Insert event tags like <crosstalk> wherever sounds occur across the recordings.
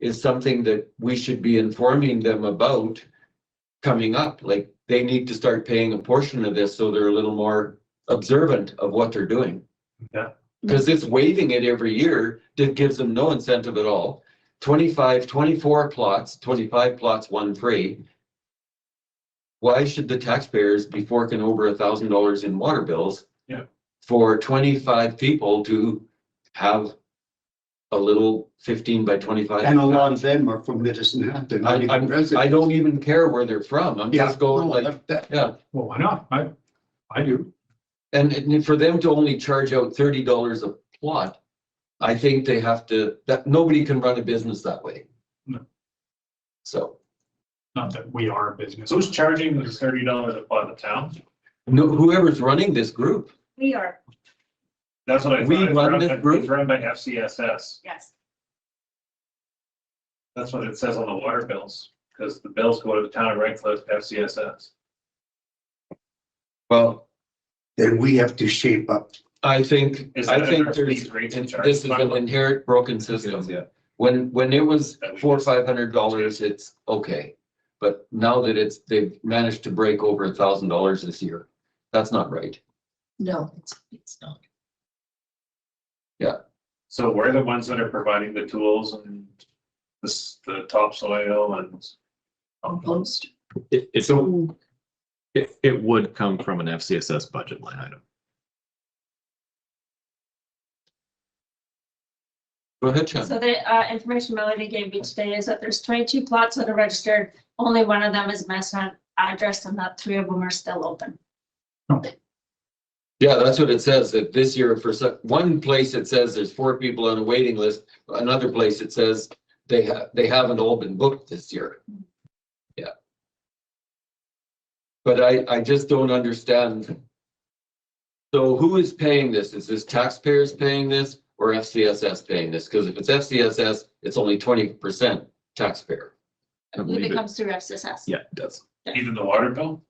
is something that we should be informing them about coming up. Like, they need to start paying a portion of this so they're a little more observant of what they're doing. Yeah. Because it's waiving it every year that gives them no incentive at all. 25, 24 plots, twenty-five plots, one free. Why should the taxpayers be forking over a thousand dollars in water bills? Yeah. For twenty-five people to have a little fifteen by twenty-five. And a lot of them are from Medicine Hat, they're I- not even I residents. don't even care where they're from. I'm Yeah, just going no, like, that- that- yeah. Well, why not? I, I do. And, and for them to only charge out thirty dollars a plot, I think they have to, that, nobody can run a business that way. No. So, Not that we are a business. Who's charging the thirty dollars a part of town? no, whoever's running this group, We are, That's what I. We thought. It's run run this by- group? It's run by FCSS. yes. That's what it says on the water bills, because the bills go to the town of Red Cliff, FCSS. well, Then we have to shape up. I think, Is I that think our there's, police rates and this is charges? an inherent broken system. Yeah. When, when it was That we four, just- five hundred dollars, it's okay. But now that it's, they've managed to break over a thousand dollars this year, that's not right. No, it's, it's not. So we're the ones that are providing the tools and this, the topsoil and. Compost. It, it's, it, it would come from an FCSS budget line item. Go ahead, Chad. So the uh, information Melody gave me today is that there's twenty-two plots that are registered. Only one of them is mess on address and that three of them are still open. Yeah, that's what it says, that this year for so- one place it says there's four people on a waiting list, another place it says they have, they haven't all been booked this year. Yeah. But I, I just don't understand. So who is paying this? Is this taxpayers paying this or FCSS paying this? Because if it's FCSS, it's only twenty percent taxpayer. I believe It it, comes through FCSS. yeah, it does. Even the water bill?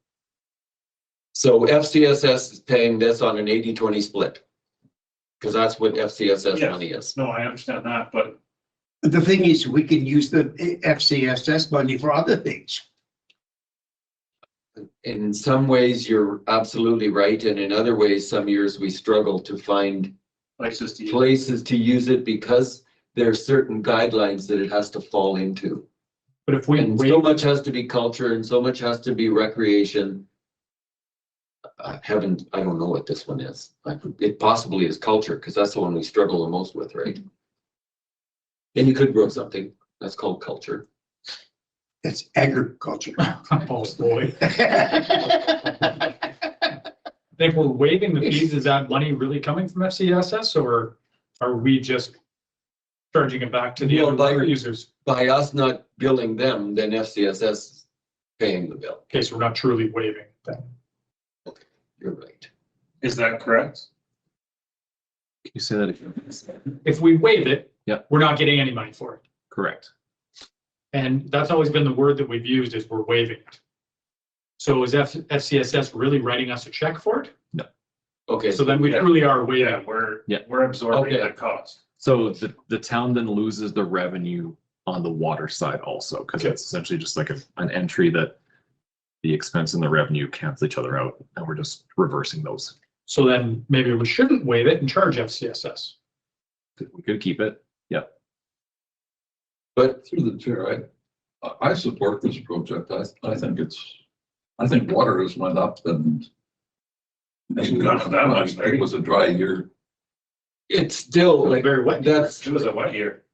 So FCSS is paying this on an 80-20 split. Because that's what FCSS Yes. money is. No, I understand that, but The thing is, we can use the FCSS money for other things. in some ways, you're absolutely right, and in other ways, some years we struggle to find places to use. places to use it because there are certain guidelines that it has to fall into. But if we, And so waive- much has to be culture and so much has to be recreation. I haven't, I don't know what this one is. I- It possibly is culture, because that's the one we struggle the most with, right? And you could grow something that's called culture. That's agriculture. <laughs> compost, boy, if we're waiving the fees, is that money really coming from FCSS or are we just charging it back to the Well, by- other users? By us not billing them, then FCSS is paying the bill. Okay, so we're not truly waiving that. You're right. Is that correct? Can you say that again? If we waive it. Yeah. We're not getting any money for it. Correct. And that's always been the word that we've used is we're waiving it. So is F, FCSS really writing us a check for it? Okay, So then we truly are Yeah, waiving. we're, Yeah. we're absorbing Okay. that cost. So the, the town then loses the revenue on the water side also, because Okay. it's essentially just like a- an entry that the expense and the revenue cancel each other out, and we're just reversing those. So then maybe we shouldn't waive it and charge FCSS. We could keep it. but Through the chair, I, I, I support this project. I, I think it's, I think water has went up and. Hasn't gone up that much, It was a dry year. it's still like, Very wet. that's, It was a wet year.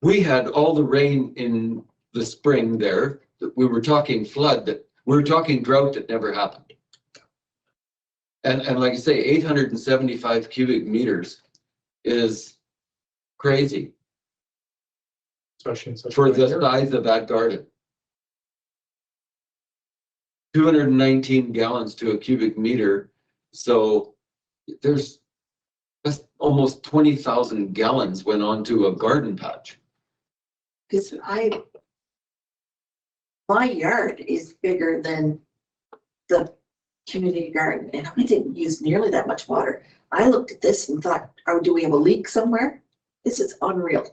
we had all the rain in the spring there. that We were talking flood, that, we were talking drought that never happened. And, and like I say, eight hundred and seventy-five cubic meters is crazy especially in such. a for the weather. size of that garden. Two hundred and nineteen gallons to a cubic meter, so there's that's almost twenty thousand gallons went onto a garden patch. Because I, my yard is bigger than the community garden and I didn't use nearly that much water. I looked at this and thought, oh, do we have a leak somewhere? This is unreal.